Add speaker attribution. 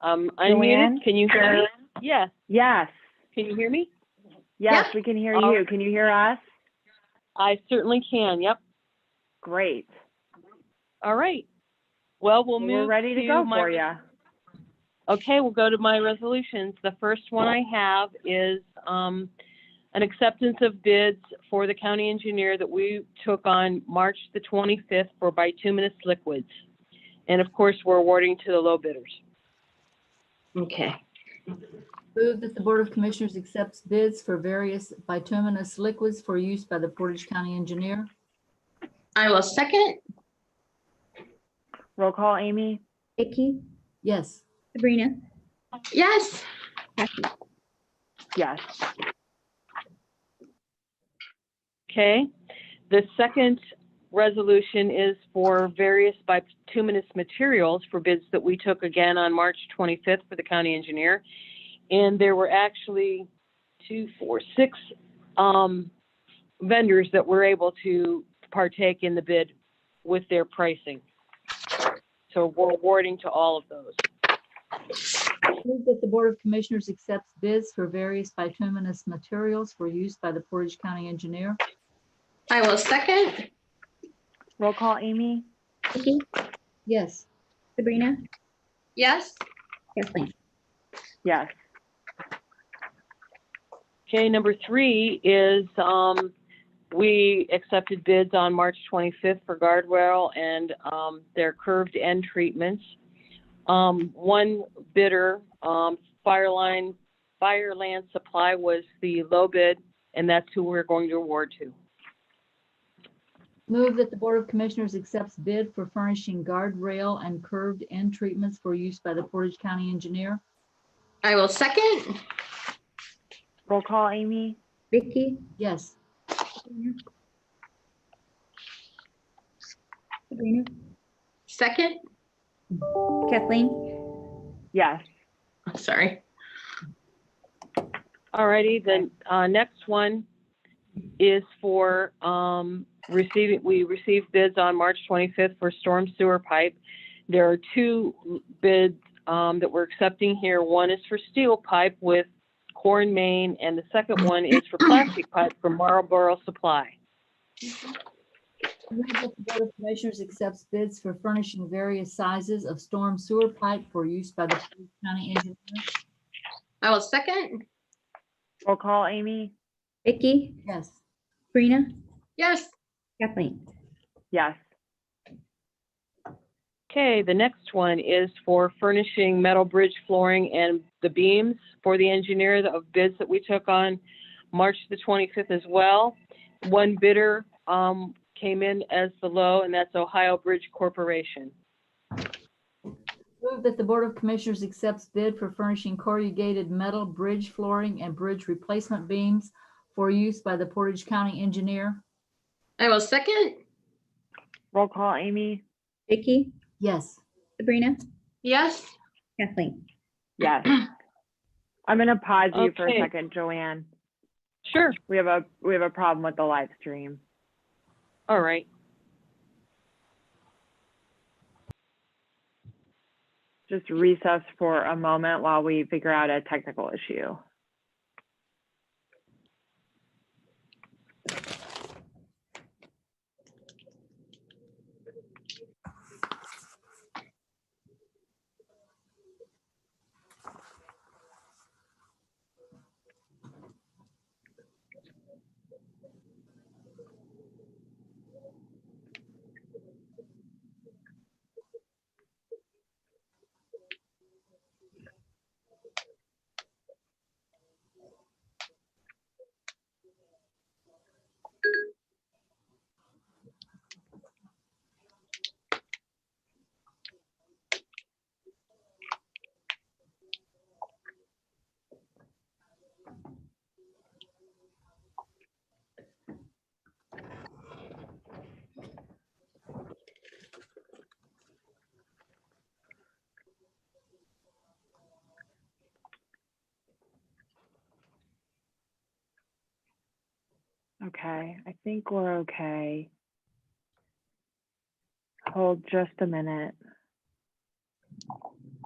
Speaker 1: Um,
Speaker 2: Joanne?
Speaker 1: unmuted, can you hear me? Yeah,
Speaker 2: Yes,
Speaker 1: can you hear me?
Speaker 2: yes, we can hear
Speaker 1: All
Speaker 2: you. Can you hear us?
Speaker 1: I certainly can, yep.
Speaker 2: Great.
Speaker 1: All right. Well, we'll move
Speaker 2: We're ready to go
Speaker 1: my-
Speaker 2: for you.
Speaker 1: Okay, we'll go to my resolutions. The first one I have is um, an acceptance of bids for the county engineer that we took on March the 25th for bituminous liquids. And of course, we're awarding to the low bidders.
Speaker 3: Okay,
Speaker 4: Move that the Board of Commissioners accepts bids for various bituminous liquids for use by the Portage County Engineer.
Speaker 3: I will second.
Speaker 2: Roll call, Amy?
Speaker 5: Vicky,
Speaker 4: Yes,
Speaker 5: Sabrina,
Speaker 3: Yes,
Speaker 5: Kathy.
Speaker 2: Yes.
Speaker 1: Okay. The second resolution is for various bituminous materials for bids that we took again on March 25th for the county engineer. And there were actually two, four, six um, vendors that were able to partake in the bid with their pricing. So we're awarding to all of those.
Speaker 4: move that the Board of Commissioners accepts bids for various bituminous materials for use by the Portage County Engineer.
Speaker 3: I will second.
Speaker 2: Roll call, Amy?
Speaker 5: Vicky,
Speaker 4: Yes,
Speaker 5: Sabrina,
Speaker 3: Yes,
Speaker 5: Kathleen.
Speaker 2: Yes.
Speaker 1: Okay, number three is, um, we accepted bids on March 25th for guardrail and, um, their curved end treatments. Um, one bidder, um, Fireline, Fireland Supply was the low bid, and that's who we're going to award to.
Speaker 4: move that the Board of Commissioners accepts bid for furnishing guardrail and curved end treatments for use by the Portage County Engineer.
Speaker 3: I will second.
Speaker 2: Roll call, Amy?
Speaker 5: Vicky,
Speaker 4: Yes,
Speaker 5: Sabrina,
Speaker 3: Second,
Speaker 5: Kathleen.
Speaker 2: Yes.
Speaker 3: I'm sorry.
Speaker 1: Alrighty, then, uh, next one is for, um, receiving, we received bids on March twenty-fifth for storm sewer pipe. There are two bids, um, that we're accepting here. One is for steel pipe with Corn, Maine, and the second one is for plastic pipe from Marlboro Supply.
Speaker 4: move that the Board of Commissioners accepts bids for furnishing various sizes of storm sewer pipe for use by the Portage County Engineer.
Speaker 3: I will second.
Speaker 2: Roll call, Amy?
Speaker 5: Vicky,
Speaker 4: Yes.
Speaker 5: Sabrina,
Speaker 3: Yes,
Speaker 5: Kathleen.
Speaker 2: Yes.
Speaker 1: Okay, the next one is for furnishing metal bridge flooring and the beams for the engineer of bids that we took on March the 25th as well. One bidder um, came in as the low, and that's Ohio Bridge Corporation.
Speaker 4: Move that the Board of Commissioners accepts bid for furnishing corrugated metal bridge flooring and bridge replacement beams for use by the Portage County Engineer.
Speaker 3: I will second.
Speaker 2: Roll call, Amy?
Speaker 5: Vicky,
Speaker 4: Yes.
Speaker 5: Sabrina,
Speaker 3: Yes,
Speaker 5: Kathleen.
Speaker 2: Yes. I'm going to pause you for a
Speaker 1: Okay.
Speaker 2: second, Joanne.
Speaker 1: Sure,
Speaker 2: We have a, we have a problem with the live stream.
Speaker 1: all right.
Speaker 2: Just recess for a moment while we figure out a technical issue. Okay, I think we're okay. Hold just a minute.